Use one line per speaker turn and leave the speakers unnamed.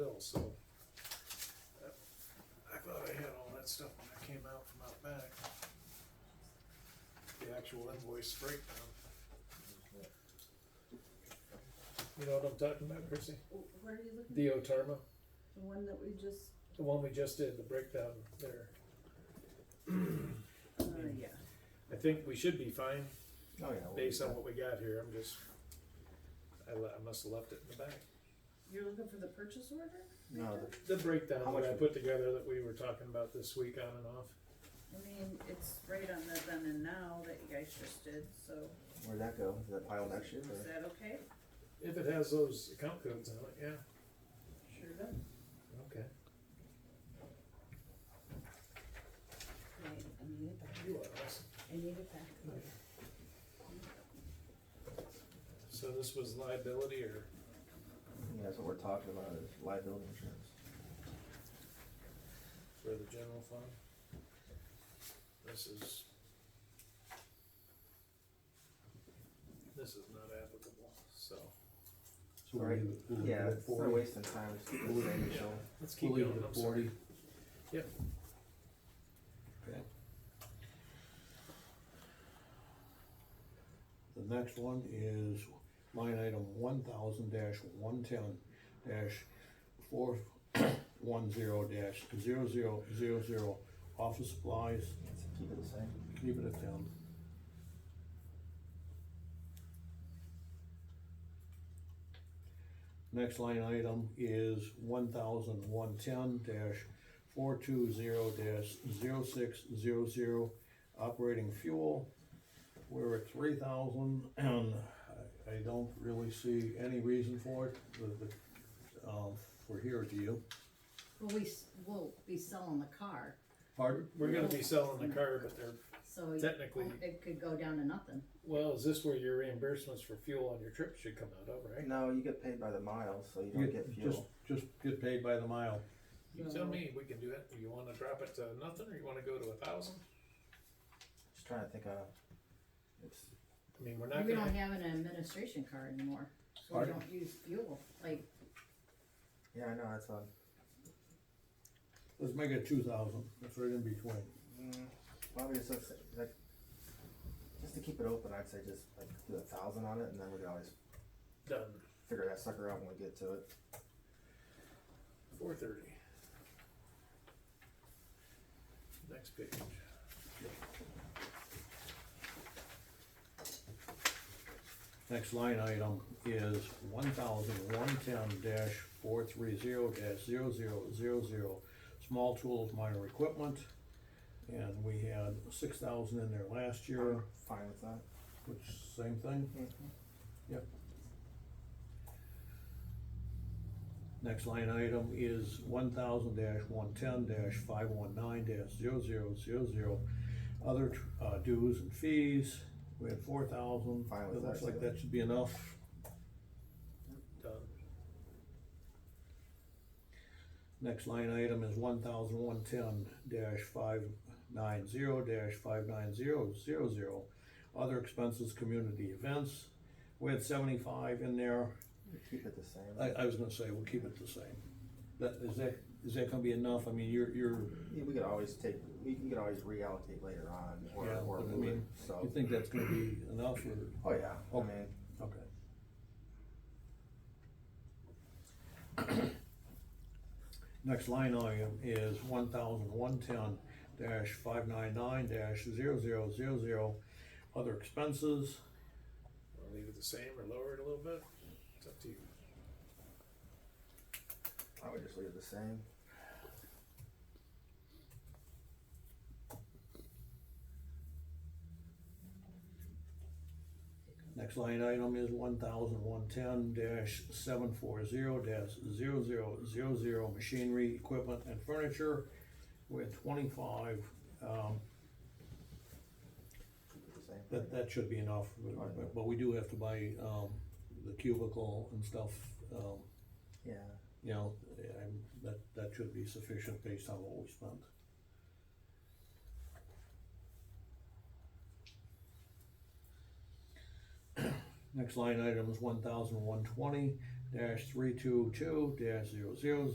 so. uh, I thought I had all that stuff when I came out from out back. The actual invoice breakdown, you know what I'm talking about, Chrissy?
Wh- Where are you looking?
The Otarma,
The one that we just,
the one we just did, the breakdown there.
uh, yeah.
I think we should be fine
Oh, yeah. we'll
based
do
on
that.
what we got here, I'm just, I le- I must've left it in the back.
You're looking for the purchase order?
No,
Victor?
The breakdown
How
that I
much-
put together that we were talking about this week on and off.
I mean, it's right on the then and now that you guys just did, so
Where'd that go? Is that pile next year?
is
or-
that okay?
If it has those account codes on it, yeah,
Sure does.
okay.
Wait, I need a pack.
You are awesome.
I need a pack.
So this was liability or?
Yeah, that's what we're talking about is liability insurance.
For the general fund? This is. This is not applicable, so.
So we'll
Right.
leave it- we'll leave it
Yeah,
at
it's not
40.
wasting time. It's just the same deal.
Let's keep
We'll leave
going,
it
I'm
at
sorry.
forty.
Yep.
Okay. The next one is line item one thousand dash one ten dash four one zero dash zero zero zero zero, office supplies,
Keep it the same.
keep it at ten. Next line item is one thousand one ten dash four two zero dash zero six zero zero, operating fuel. We're at three thousand, and I- I don't really see any reason for it, the, the, um, for here to you.
Well, we, s- we'll be selling the car,
Pardon?
We're gonna be selling the car, but they're,
so. you-
Technically-
It could go down to nothing.
well, is this where your reimbursements for fuel on your trip should come out of, right?
No, you get paid by the mile, so you
You
don't get
Just,
fuel.
just get paid by the mile.
You tell me, we can do it, you wanna drop it to nothing, or you wanna go to a thousand?
Just trying to think of, it's,
I mean, we're not
We don't
gonna,
have an administration car anymore, so we
Pardon?
don't use fuel, like,
yeah, I know, it's a,
Let's make it two thousand, that's right in between.
mm, probably just let's say, like, just to keep it open, I'd say just like do a thousand on it and then we could always
done,
figure that sucker out when we get to it.
four thirty. Next page.
Next line item is one thousand one ten dash four three zero dash zero zero zero zero, small tools, minor equipment. And we had six thousand in there last year,
Fine with that.
which same thing.
Mm-hmm.
Yep. Next line item is one thousand dash one ten dash five one nine dash zero zero zero zero. Other tr- uh, dues and fees, we had four thousand,
Fine with
it looks
that,
like
so-
that should be enough.
Done,
Next line item is one thousand one ten dash five nine zero dash five nine zero zero zero. Other expenses, community events, we had seventy-five in there,
Keep it the same.
I, I was gonna say, we'll keep it the same. That, is that, is that gonna be enough, I mean, you're, you're,
Yeah, we could always take, we can always reallocate later on or,
Yeah,
or
but I
move it,
mean,
so.
you think that's gonna be enough, or,
Oh, yeah, I
Okay.
mean,
okay. Next line item is one thousand one ten dash five nine nine dash zero zero zero zero, other expenses.
wanna leave it the same or lower it a little bit, it's up to you.
I would just leave it the same.
Next line item is one thousand one ten dash seven four zero dash zero zero zero zero machinery, equipment and furniture with twenty-five. Um,
Keep it the same.
that, that should be enough, but- but, but we do have to buy, um, the cubicle and stuff, um,
Yeah,
you know, I'm, that, that should be sufficient based on what we spent. Next line item is one thousand one twenty dash three two two dash zero zero